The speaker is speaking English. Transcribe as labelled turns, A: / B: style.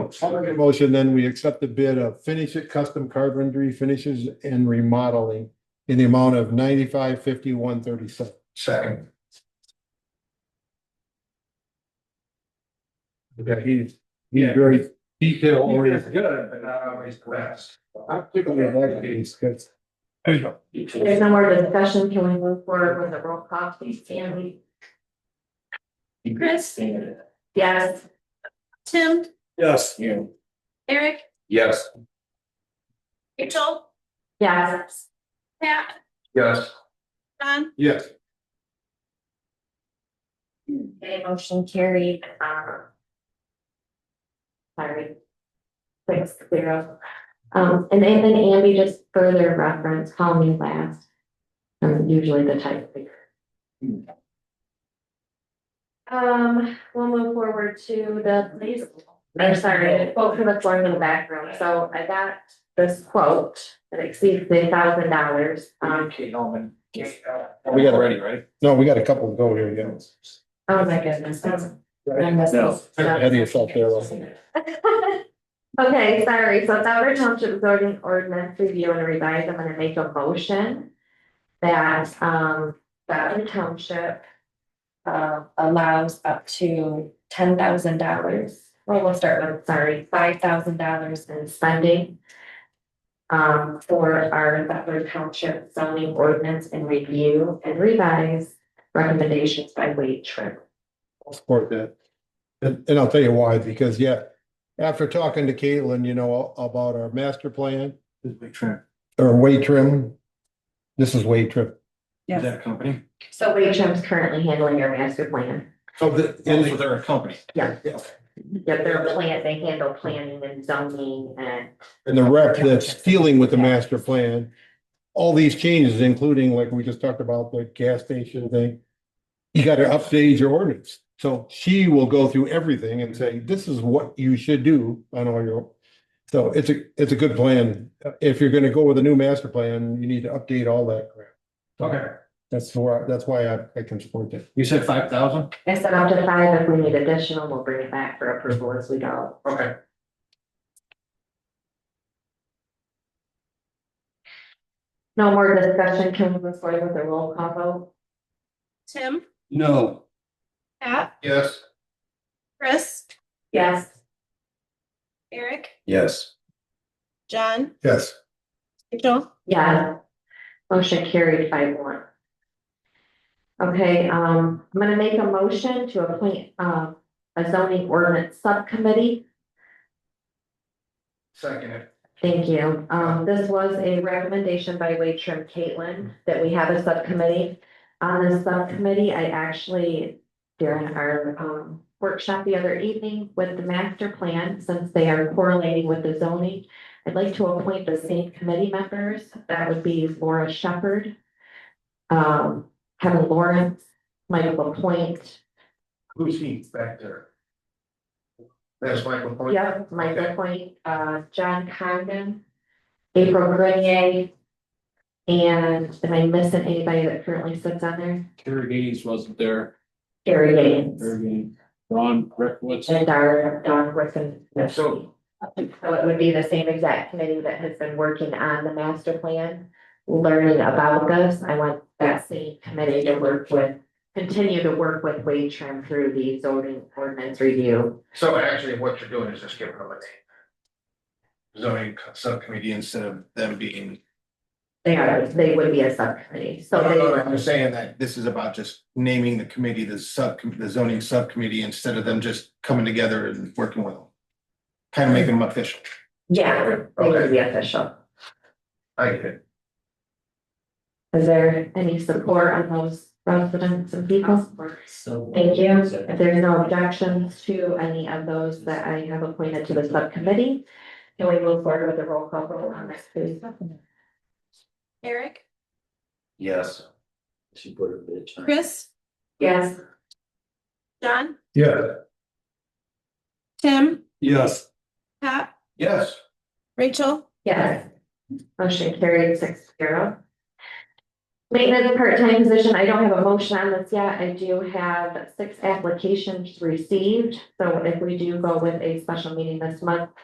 A: I'll make a motion, then we accept the bid of Finish It Custom Carpentry Finishes and Remodeling in the amount of ninety-five fifty-one thirty-seven.
B: Second.
A: Okay, he's, he's very detail
B: It's
A: oriented.
B: good, but not always the best.
A: I'm particularly like these, 'cause
C: There's no more discussion, can we move forward with the roll call, please, Sandy? Chris? Yes. Tim?
B: Yes.
C: Eric?
B: Yes.
C: Rachel? Yes. Pat?
B: Yes.
C: John?
A: Yes,
C: Okay, motion carried, um. Sorry. Six zero. Um, and then then Andy, just further reference, call me last. I'm usually the type speaker. Um, we'll move forward to the police. I'm sorry, quote for the floor in the back room, so I got this quote that exceeds the thousand dollars, um,
B: Okay, Norman. We
A: We got it
B: ready, right?
A: no, we got a couple to go here, yeah.
C: oh my goodness, that's. I missed
B: No.
C: this.
A: Ahead of yourself there, Leslie.
C: Okay, sorry, so Delaware Township zoning ordinance review and revise, I'm gonna make a motion. That um Delaware Township. Uh allows up to ten thousand dollars, well, we'll start with, sorry, five thousand dollars in spending. Um for our Delaware Township zoning ordinance and review and revise recommendations by Wade Trim.
A: I'll support that. And, and I'll tell you why, because yeah, after talking to Caitlin, you know, about our master plan or weight trim. This is weight trim.
B: Is that a company?
C: So Wade's currently handling your master plan.
A: So the,
B: And so they're a company.
C: Yeah.
B: Yeah.
C: Yep, their plan, they handle planning and zoning and.
A: and the rep that's dealing with the master plan. All these changes, including like we just talked about, the gas station thing. You gotta update your ordinance. So she will go through everything and say, this is what you should do on all your. So it's a, it's a good plan. If you're gonna go with a new master plan, you need to update all that crap.
B: Okay,
A: That's why, that's why I, I can support that.
B: you said five thousand?
C: I said up to five, if we need additional, we'll bring it back for approval as we go.
B: Okay.
C: No more discussion, can we move forward with the roll call vote?
D: Tim,
B: No.
D: Pat,
B: Yes.
D: Chris,
C: Yes.
D: Eric,
B: Yes.
D: John,
A: Yes.
D: Rachel,
C: Yeah. Motion carried by one. Okay, um, I'm gonna make a motion to appoint, uh, a zoning ordinance subcommittee
B: Second.
C: Thank you. Um, this was a recommendation by Wade Trim Caitlin that we have a subcommittee. On this subcommittee, I actually, during our, um, workshop the other evening with the master plan, since they are correlating with the zoning. I'd like to appoint the same committee members. That would be Laura Shepherd. Um, Kevin Lawrence, Michael Point,
B: Who's he back there? That's Michael. Point.
C: Yep, Michael Point, uh, John Condon, April Grenier. And am I missing anybody that currently sits on there?
E: Terry Gaines wasn't there,
C: Gary Gaines
E: Terry Gaines, Ron Reckowitz,
C: and our Don Griffin.
B: So-
C: So it would be the same exact committee that has been working on the master plan, learning about this. I want that same committee to work with, continue to work with Wade Trim through the zoning ordinance review.
B: So actually, what you're doing is just giving them a name. Zoning subcommittee instead of them being.
C: They are, they would be a subcommittee, so they. would-
B: I'm saying that this is about just naming the committee, the sub, the zoning subcommittee, instead of them just coming together and working with them. Kind of making them official.
C: Yeah, they would
B: Okay.
C: be official.
B: I get it.
C: Is there any support on those residents and people? Thank you. If there's no objections to any of those that I have appointed to the subcommittee, can we move forward with the roll call vote on this, please?
D: Eric,
E: yes. She put her bitch.
D: Chris,
C: Yes.
D: John,
B: Yeah.
D: Tim,
E: Yes.
D: Pat,
B: Yes.
D: Rachel,
C: Yes. Motion carried six zero. Maintenance part-time position, I don't have a motion on this yet. I do have six applications received. So if we do go with a special meeting this month,